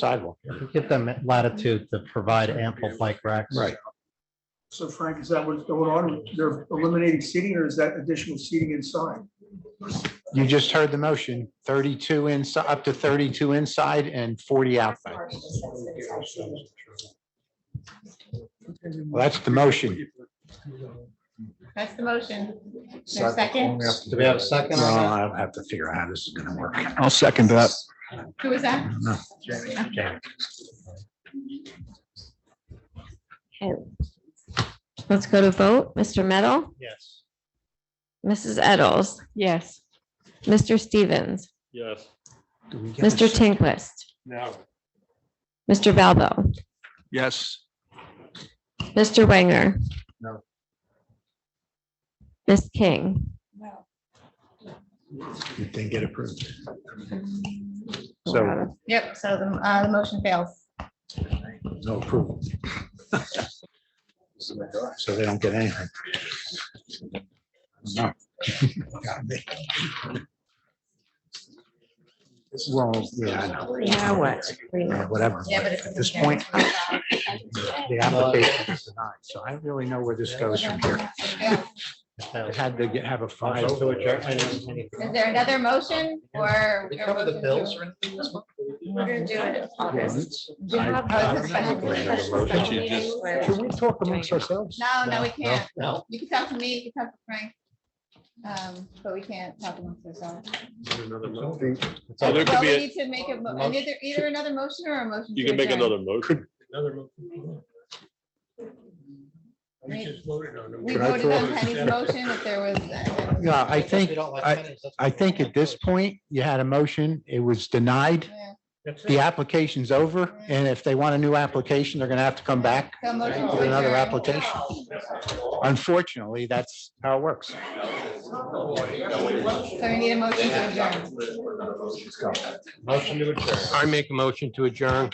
sidewalk. Give them latitude to provide ample bike racks. Right. So Frank, is that what's going on? They're eliminating seating or is that additional seating inside? You just heard the motion, thirty-two inside, up to thirty-two inside and forty outside. Well, that's the motion. That's the motion. Is there a Second, Do we have a second No, on I'll have to figure out how this is gonna work. I'll second that. who was that? Okay. Let's go to vote. Mr. Meadow, that? Yes. Mrs. Eddles, Yes. Mr. Stevens, Yes. Mr. Tinquist. Mr. Valbo, Yes. Mr. Wanger. No. Ms. King, It didn't get approved. So- Yep, so the, uh, the motion fails. No approval. So they don't get anything. No. Got me. Well, yeah, I know. Now what? Uh, whatever. Yeah, but it's. At this point, the application is denied, so I don't really know where this goes from here. It had to get- have a five. Is there another motion or? We cover the bills or anything? We're gonna do it. Can we talk amongst ourselves? No, no, we can't. You can talk to me, you can talk to Frank. Um, but we can't talk amongst ourselves. So there could Well, be, we a- need to make a, mo- either, either another motion or a motion. you to can make adjourn. another motion. We we Can I voted on throw- Penny's motion if there was. uh, No, I think, I, I think at this point, you had a motion, it was denied, yeah. the application's over, and if they want a new application, they're gonna have to come back So motion to with another adjourn. application. Unfortunately, that's how it works. So we need a motion to adjourn. Motion to adjourn. I make a motion to adjourn.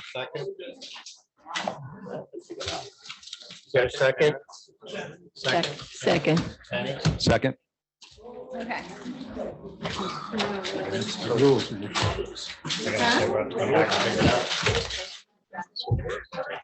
Second. Is there a second? Second. second. Penny? Second. Okay. The rules. Huh?